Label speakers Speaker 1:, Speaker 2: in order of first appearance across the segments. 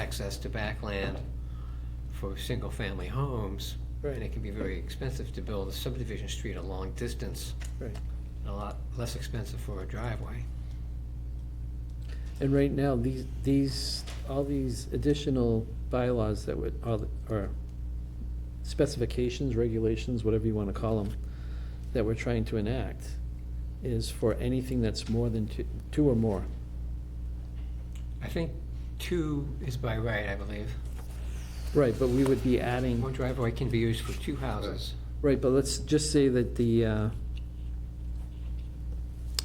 Speaker 1: access to backland for single-family homes. And
Speaker 2: Right.
Speaker 1: it can be very expensive to build a subdivision street a long distance,
Speaker 2: Right.
Speaker 1: and a lot less expensive for a driveway.
Speaker 2: And right now, these, these, all these additional bylaws that would, all the- or specifications, regulations, whatever you want to call them, that we're trying to enact, is for anything that's more than two, two or more.
Speaker 1: I think two is by right, I believe.
Speaker 2: Right, but we would be
Speaker 1: One
Speaker 2: adding,
Speaker 1: driveway can be used for two houses.
Speaker 2: right, but let's just say that the, uh,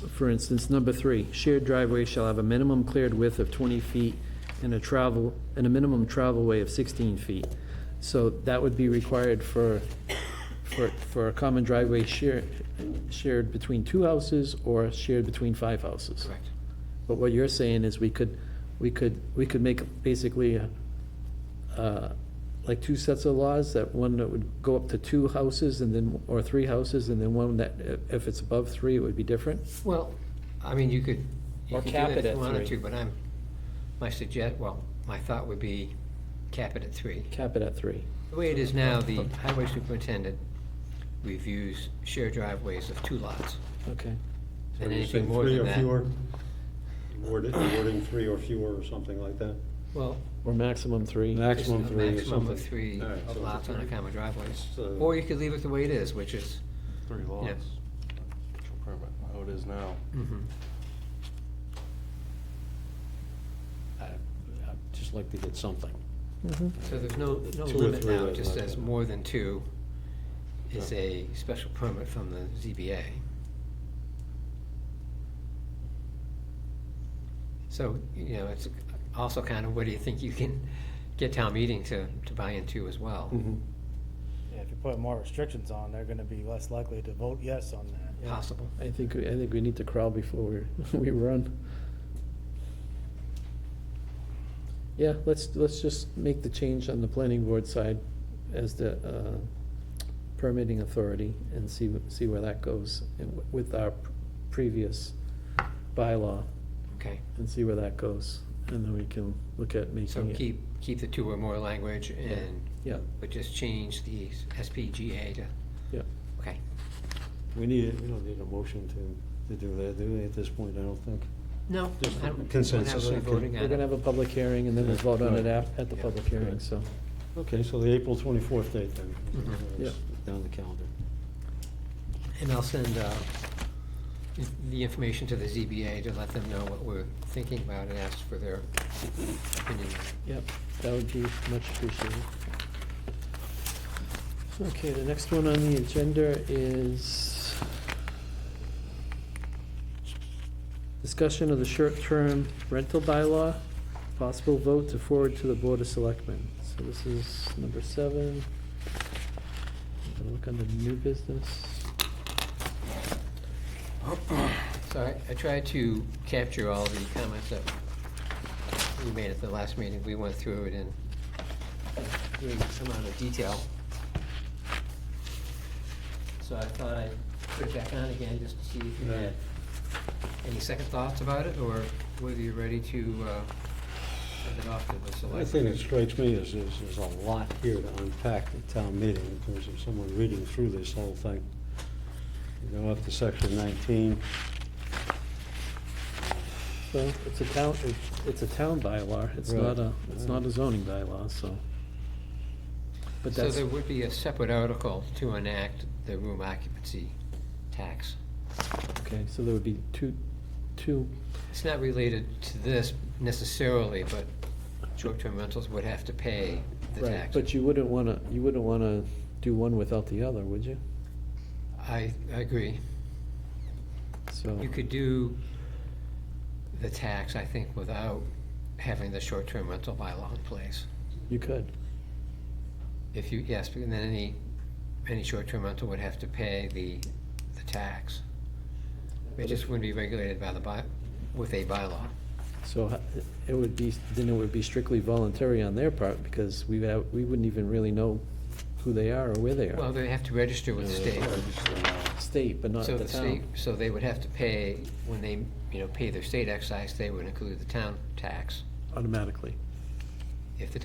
Speaker 2: for instance, number three, shared driveway shall have a minimum cleared width of twenty feet and a travel, and a minimum travel way of sixteen feet. So that would be required for, for, for a common driveway shared, shared between two houses or shared between five houses.
Speaker 1: Correct.
Speaker 2: But what you're saying is we could, we could, we could make basically, a- uh, like two sets of laws, that one that would go up to two houses and then, or three houses, and then one that, i- if it's above three, it would be different?
Speaker 1: Well, I mean, you could, you
Speaker 2: Or
Speaker 1: could do
Speaker 2: cap
Speaker 1: that if
Speaker 2: it at
Speaker 1: you wanted
Speaker 2: three.
Speaker 1: to, but I'm, my suggest, well, my thought would be cap it at three.
Speaker 2: Cap it at three.
Speaker 1: The way it is now, the highway superintendent reviews shared driveways of two lots.
Speaker 2: Okay.
Speaker 3: So
Speaker 1: And
Speaker 3: you
Speaker 1: anything
Speaker 3: say
Speaker 1: more
Speaker 3: three
Speaker 1: than
Speaker 3: or
Speaker 1: that-
Speaker 3: fewer? Word it- Wording three or fewer or something like that?
Speaker 1: Well,
Speaker 2: Or maximum three.
Speaker 1: it's a
Speaker 3: Maximum three or
Speaker 1: maximum
Speaker 3: something?
Speaker 1: of three
Speaker 3: All right, so
Speaker 1: lots on a
Speaker 3: three.
Speaker 1: common driveway.
Speaker 3: So-
Speaker 1: Or you could leave it the way it is, which is,
Speaker 4: uh, Three lots.
Speaker 1: Yes.
Speaker 4: Special permit, how it is now.
Speaker 1: mhm.
Speaker 5: I- I'd just like to get something.
Speaker 1: so there's no, no
Speaker 3: Two or
Speaker 1: limit
Speaker 3: three
Speaker 1: now, it
Speaker 3: lots,
Speaker 1: just
Speaker 3: okay.
Speaker 1: says more than two is
Speaker 4: Yeah.
Speaker 1: a special permit from the ZBA. So, you know, it's also kind of, what do you think you can get town meeting to, to buy into as well?
Speaker 3: Mm. Mm-hmm.
Speaker 6: Yeah, if you put more restrictions on, they're gonna be less likely to vote yes on that. yeah.
Speaker 1: Possible.
Speaker 2: I think, we- I think we need to crawl before we, we run. Yeah, let's, let's just make the change on the planning board side as the uh, permitting authority and see, see where that goes and with our previous bylaw
Speaker 1: Okay,
Speaker 2: and see where that goes. And then we can look at
Speaker 1: so
Speaker 2: making it.
Speaker 1: keep, keep the two or more language and,
Speaker 2: Yeah,
Speaker 1: but just change the SPGA to,
Speaker 2: yeah.
Speaker 1: okay.
Speaker 3: We need, we don't need a motion to, to do that, do we, at this point, I don't think?
Speaker 1: No.
Speaker 3: Just
Speaker 1: I don't- we're not
Speaker 3: consensus,
Speaker 1: really
Speaker 3: okay.
Speaker 1: voting on
Speaker 2: We're gonna
Speaker 1: it.
Speaker 2: have a public hearing and then we'll vote on it at, at the public hearing, so.
Speaker 3: Okay, so the April twenty-fourth date then.
Speaker 1: Mhm.
Speaker 3: That's
Speaker 2: Yeah.
Speaker 3: Down the calendar.
Speaker 1: And I'll send uh, the information to the ZBA to let them know what we're thinking about and ask for their opinion.
Speaker 2: Yep, that would be much appreciated. Okay, the next one on the agenda is discussion of the short-term rental bylaw, possible vote to forward to the Board of Selectmen. So this is number seven. I'm gonna Look under new business.
Speaker 1: So I- I tried to capture all the comments that we made at the last meeting. We went through it in great amount of detail. So I thought I'd put it back on again just to see if you had any second thoughts about it or whether you're ready to uh, send it off to the
Speaker 3: The
Speaker 1: select.
Speaker 3: only thing that strikes me is, is there's a lot here to unpack at town meeting in terms of someone reading through this whole thing. You go up to section nineteen,
Speaker 2: So it's a town, it's- it's a town bylaw, it's
Speaker 3: Right.
Speaker 2: not a, it's not a zoning bylaw, so. But
Speaker 1: So
Speaker 2: that's,
Speaker 1: there would be a separate article to enact the room occupancy tax.
Speaker 2: okay, so there would be two, two
Speaker 1: It's not related to this necessarily, but short-term rentals would have to pay the
Speaker 2: Right,
Speaker 1: tax.
Speaker 2: but you wouldn't want to, you wouldn't want to do one without the other, would you?
Speaker 1: I I agree.
Speaker 2: So,
Speaker 1: You could do the tax, I think, without having the short-term rental bylaw in place.
Speaker 2: you could,
Speaker 1: If you, yes, but then any, any short-term rental would have to pay the, the tax. It just wouldn't be regulated by the by, with a bylaw.
Speaker 2: so h- it would be, then it would be strictly voluntary on their part, because we, would we wouldn't even really know who they are or where they
Speaker 1: Well,
Speaker 2: are.
Speaker 1: they have to register with the state.
Speaker 3: uh,
Speaker 2: State, but not
Speaker 1: So
Speaker 2: the
Speaker 1: the state,
Speaker 2: town.
Speaker 1: so they would have to pay, when they, you know, pay their state excise, they would include the town tax
Speaker 2: Automatically.